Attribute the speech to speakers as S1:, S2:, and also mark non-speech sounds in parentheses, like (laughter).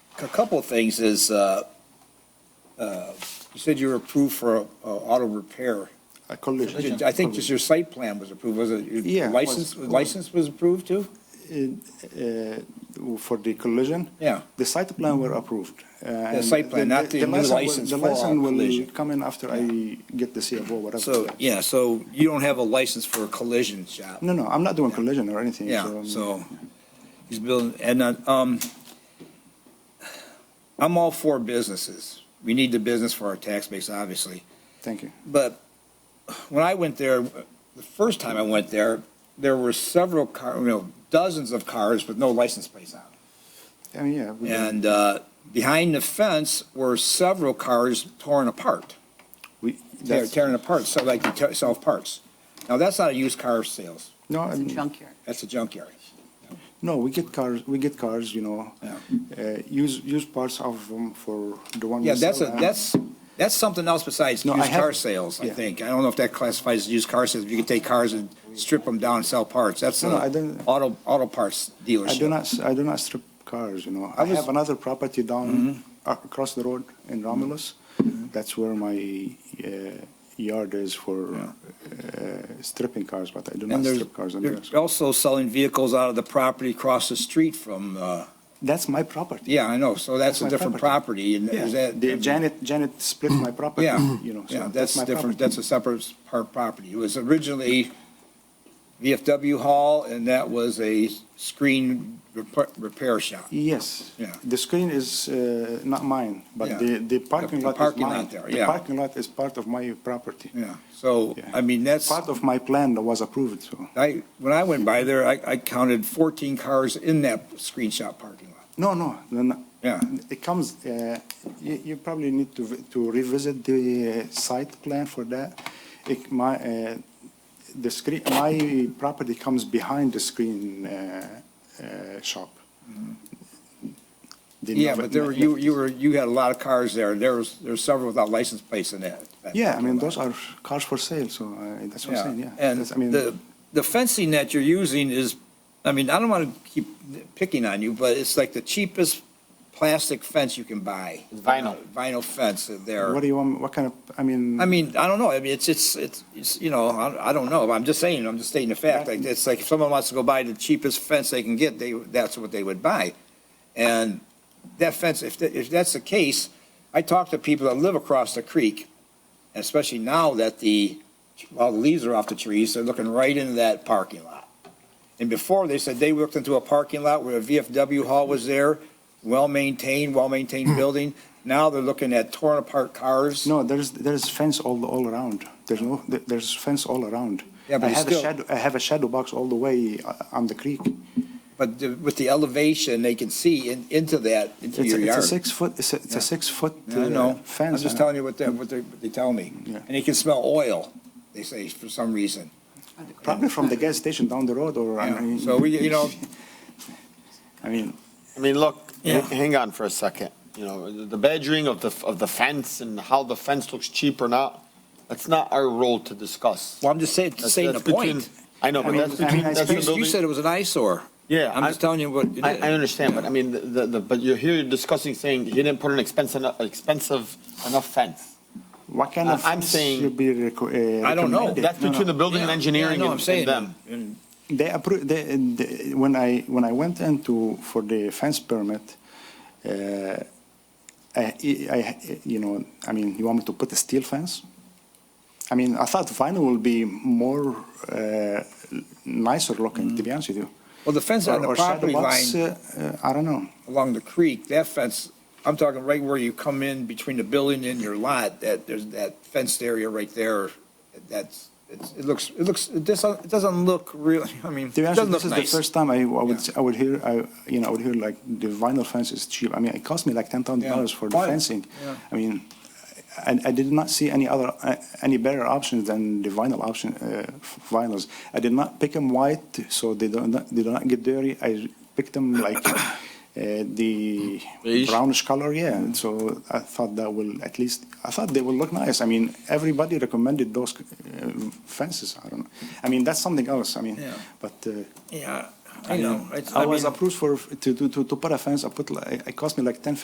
S1: a couple of things is, uh, uh, you said you were approved for uh, auto repair.
S2: A collision.
S1: I think just your site plan was approved, was it? your
S2: Yeah, it was.
S1: License, license was approved too?
S2: Uh, For the collision?
S1: Yeah.
S2: The site plan were approved. The
S1: site plan, not the new license
S2: The
S1: for
S2: license will
S1: collision.
S2: come in after I get the CFO, whatever.
S1: So, yeah, so you don't have a license for a collision shop?
S2: No, no, I'm not doing collision or anything.
S1: Yeah,
S2: um,
S1: so he's building, and, uh, um, I'm all for businesses. We need the business for our tax base, obviously.
S2: Thank you.
S1: But when I went there, the first time I went there, there were several car, you know, dozens of cars with no license plates on.
S2: I mean, yeah. we-
S1: And, uh, behind the fence were several cars torn apart.
S2: we-
S1: They're
S2: that's-
S1: tearing apart, so like they tear- sell parts. Now, that's not a used car sales,
S2: No, I
S3: It's a
S2: mean,
S3: junkyard.
S1: that's a junkyard.
S2: no, we get cars, we get cars, you know,
S1: Yeah.
S2: uh, use, use parts of them for the one. we
S1: Yeah, that's a,
S2: sell, uh,
S1: that's, that's something else besides
S2: No, I
S1: used car
S2: have-
S1: sales, I
S2: yeah.
S1: think. I don't know if that classifies as used car sales, if you could take cars and strip them down and sell parts. That's
S2: No, no, I
S1: a
S2: don't-
S1: auto, auto parts dealership.
S2: I do not, s- I do not strip cars, you know. I
S1: was-
S2: have another property down,
S1: Mm-hmm.
S2: uh, across the road in Romulus. That's where my uh, yard is for uh, stripping cars, but I do not
S1: And there's,
S2: strip cars. on
S1: they're
S2: those.
S1: also selling vehicles out of the property across the street from, uh,
S2: That's my property.
S1: yeah, I know, so that's
S2: That's
S1: a
S2: my
S1: different property, and is that?
S2: The Janet, Janet split my property,
S1: Yeah,
S2: (clears throat) you know,
S1: yeah,
S2: so
S1: that's
S2: that's my
S1: different,
S2: property.
S1: that's a separate part property. It was originally VFW Hall, and that was a screen repa- repair shop.
S2: Yes.
S1: Yeah.
S2: The screen is uh, not mine,
S1: Yeah.
S2: but the, the parking
S1: the
S2: lot is
S1: parking lot
S2: mine.
S1: there,
S2: The
S1: yeah.
S2: parking lot is part of my property.
S1: Yeah, so,
S2: Yeah.
S1: I mean, that's,
S2: Part of my plan that was approved, so.
S1: I, when I went by there, I, I counted 14 cars in that screen shop parking lot.
S2: No, no, no, no.
S1: Yeah.
S2: It comes, uh, you, you probably need to, vi- to revisit the uh, site plan for that. It, my, uh, the screen, my property comes behind the screen, uh, uh, shop. The
S1: Mm-hmm. Yeah,
S2: Nova-
S1: but there were, you, you were, you had a lot of cars there, there was, there were several without license plates in that. that
S2: Yeah, I mean,
S1: parking lot.
S2: those are cars for sale, so, uh, that's what I'm saying, yeah.
S1: And
S2: That's- I mean,
S1: the, the fencing that you're using is, I mean, I don't want to keep picking on you, but it's like the cheapest plastic fence you can buy.
S4: Vinyl.
S1: Vinyl fence there.
S2: What do you want, what kind of, I mean.
S1: I mean, I don't know. I mean, it's, it's, it's, it's, you know, I, I don't know. I'm just saying, I'm just stating the fact. Like, it's like if someone wants to go buy the cheapest fence they can get, they, that's what they would buy. And that fence, if, tha- if that's the case, I talk to people that live across the creek, especially now that the, all the leaves are off the trees, they're looking right into that parking lot. And before, they said they looked into a parking lot where a VFW hall was there, well-maintained, well-maintained building. Now they're looking at torn apart cars.
S2: Hmm. No, there's, there's fence all, all around. There's no, there- there's fence all around.
S1: Yeah, but
S2: I
S1: it's
S2: have a
S1: still-
S2: shadow, I have a shadow box all the way uh, on the creek.
S1: But the- with the elevation, they can see in- into that, into
S2: It's,
S1: your
S2: a- it's a
S1: yard.
S2: six foot, it's a, it's
S1: Yeah.
S2: a six foot
S1: I know. I'm
S2: fence.
S1: just
S2: uh,
S1: telling you what they, what they, what they tell me.
S2: Yeah.
S1: And they can smell oil, they say, for some reason.
S2: Probably from the gas station down the road or, I
S1: Yeah.
S2: mean.
S1: So we, you know,
S2: (laughs) I mean,
S4: I mean, look,
S1: Yeah.
S4: h- hang on for a second. You know, the the badgering of the, f- of the fence and how the fence looks cheap or not, that's not our role to discuss.
S1: well, I'm just saying,
S4: That's-
S1: saying the
S4: that's between-
S1: point.
S4: I know,
S2: I
S4: but
S2: mean,
S4: that's
S2: I mean,
S4: between,
S2: I
S4: that's the
S2: think-
S1: You you
S4: building.
S1: said it was an eyesore.
S4: Yeah,
S1: I'm
S4: I-
S1: just telling you what. it
S4: I,
S1: is.
S4: I understand, but I mean, the, the, the- but you're here discussing saying he didn't put an expensive, enough- expensive enough fence.
S2: what kind
S4: I-
S2: of
S4: I'm
S2: fence
S4: saying-
S2: should be reco- uh,
S1: I don't know.
S2: recommended?
S4: That's
S2: No, no.
S4: between the building and
S1: Yeah.
S4: engineering
S1: Yeah, I know, I'm
S4: and and
S1: saying.
S4: them.
S1: And-
S2: They approved, they, they, when I, when I went into, for the fence permit, uh, I, I, you know, I mean, you want me to put a steel fence? I mean, I thought vinyl will be more, uh, nicer looking, to be honest with you.
S1: Well, the fence Mm. on
S2: Or-
S1: the
S2: or shadow
S1: property
S2: box,
S1: line
S2: uh, uh, I don't know.
S1: along the creek, that fence, I'm talking right where you come in between the building and your lot, that, there's that fenced area right there. That's, it's, it looks, it looks, it doesn't, it doesn't look real, (laughs) I mean, it
S2: To be honest,
S1: doesn't
S2: with
S1: look
S2: you, this is
S1: nice.
S2: the first time I, I would, I would hear, I, you know, I would hear like the vinyl fence is cheap. I mean, it cost me like ten thousand dollars
S1: Yeah.
S2: for the
S1: Why?
S2: fencing.
S1: Yeah.
S2: I mean, I, I did not see any other, uh, any better options than the vinyl option, uh, f- vinyls. I did not pick them white, so they don't, they do not get dirty. I picked them like, uh, the
S4: Beige?
S2: brownish color, yeah.
S1: Mm.
S2: And so I thought that will, at least, I thought they will look nice. I mean, everybody recommended those uh, fences. I don't know. I mean, that's something else. I mean,
S1: Yeah.
S2: but, uh,
S1: Yeah, I know. It's-
S2: I was
S1: mean-
S2: approved for, to, to, to put a fence, I put, like- it cost me like ten,